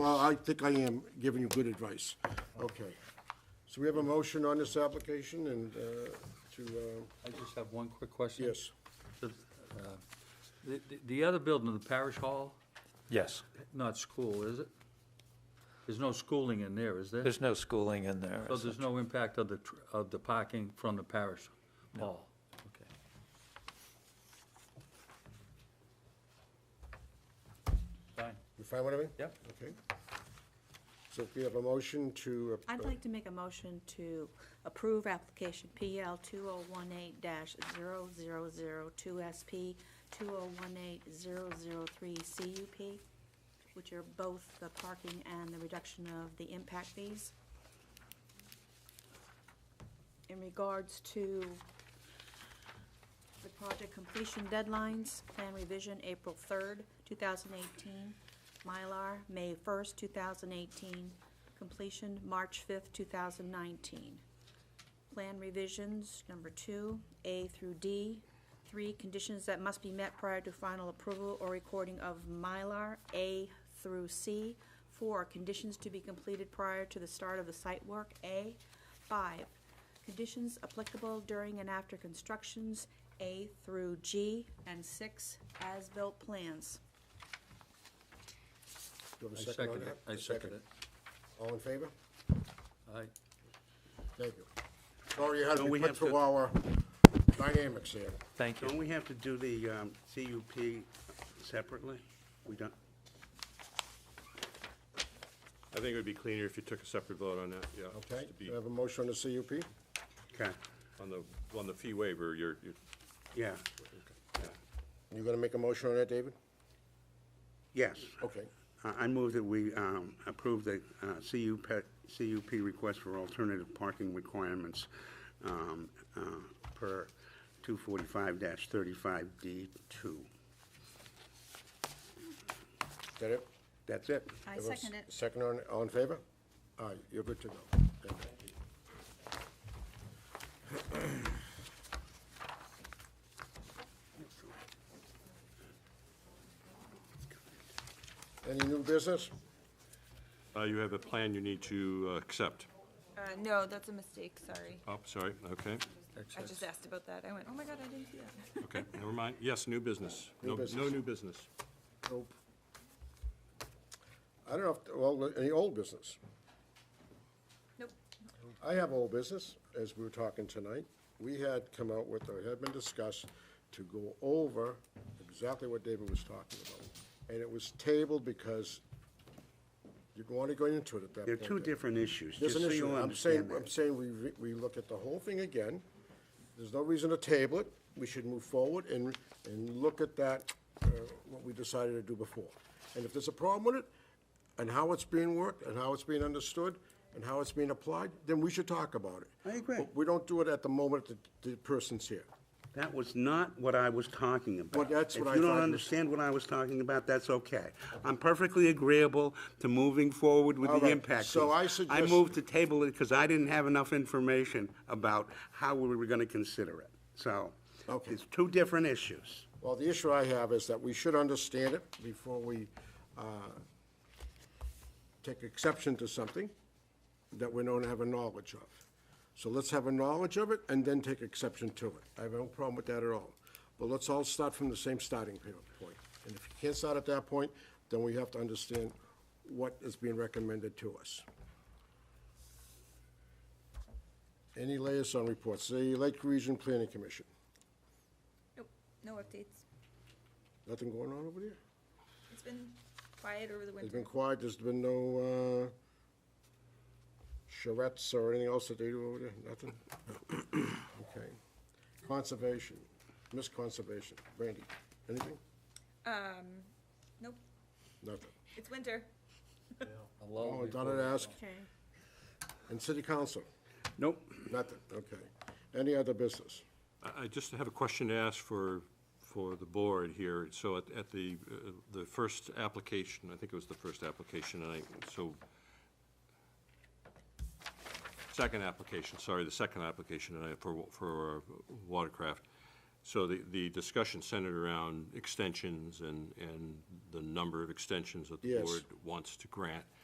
I think I am giving you good advice. Okay. So we have a motion on this application and uh, to, uh, I just have one quick question. yes, The, uh, the- the- the other building, the parish hall, Yes. not school, is it? There's no schooling in there, is there? There's no schooling in there. So there's no impact of the, tr- of the parking from the parish hall? Okay. Fine. you find what I mean? Yep. Okay. So if we have a motion to. uh, I'd like to make a motion to approve application PL 2018-0002SP, 2018-003CUP, which are both the parking and the reduction of the impact fees. In regards to the project completion deadlines, plan revision April 3rd, 2018, Mylar May 1st, 2018, completion March 5th, 2019. Plan revisions, number two, A through D. Three, conditions that must be met prior to final approval or recording of Mylar, A through C. Four, conditions to be completed prior to the start of the site work, A. Five, conditions applicable during and after constructions, A through G. And six, as-built plans. Do you have a I second on second that? it. I A second it. All in favor? Aye. Thank you. Sorry you had to Don't be we put have to- through our dynamics here. Thank Don't you. we have to do the um, CUP separately? We don't, I think it would be cleaner if you took a separate vote on that, yeah. just Okay, to be- do I have a motion on the CUP? okay, On the, on the fee waiver, you're, you're, yeah, You gonna make a motion on that, David? yes. Okay. I I move that we um, approve the uh, CUP, CUP request for alternative parking requirements um, uh, per 245-35D2. Is that it? That's it. I Have a s- second it. Second on, all in favor? Aye, you're good to go. Thank you. Any new business? uh, you have a plan you need to uh, accept. Uh, no, that's a mistake, sorry. Oh, sorry, okay, I just asked about that. I went, oh my god, I didn't see that. okay, never mind. Yes, new business. No, no business. new business. Nope. I don't know if, well, any old business? Nope. I have old business, as we were talking tonight. We had come out with, or had been discussed, to go over exactly what David was talking about. And it was tabled because you'd want to go into it at that They're point. two different issues, There's just an so issue. you I'm saying, understand I'm that. saying we, re- we look at the whole thing again. There's no reason to table it. We should move forward and, and look at that, uh, what we decided to do before. And if there's a problem with it, and how it's being worked, and how it's being understood, and how it's being applied, then we should talk about it. I agree. But we don't do it at the moment that the person's here. That was not what I was talking about. Well, that's what I If thought you you don't was- understand what I was talking about, that's okay. I'm perfectly agreeable to moving forward with All the right, impact. so fees. I I suggest- moved to table it because I didn't have enough information about how we were going to consider it. So Okay. it's two different issues. Well, the issue I have is that we should understand it before we uh, take exception to something that we don't have a knowledge of. So let's have a knowledge of it and then take exception to it. I have no problem with that at all. But let's all start from the same starting pa- point. And if you can't start at that point, then we have to understand what is being recommended to us. Any liaison reports? The Lake Region Planning Commission. Nope, no updates. Nothing going on over there? It's been quiet over the It's winter. been quiet, there's been no, uh, charrettes or anything else that they do over there, nothing? Okay. Conservation, Miss Conservation, Randy, anything? Um, nope, Nothing. it's winter. Oh, Donna to ask, Okay. and City Council, Nope. nothing, okay. Any other business? I, I just have a question to ask for, for the board here. So at, at the, uh, the first application, I think it was the first application, and I, so, second application, sorry, the second application tonight for, wa- for uh, Watercraft. So the, the discussion centered around extensions and, and the number of extensions that the Yes. board wants to grant.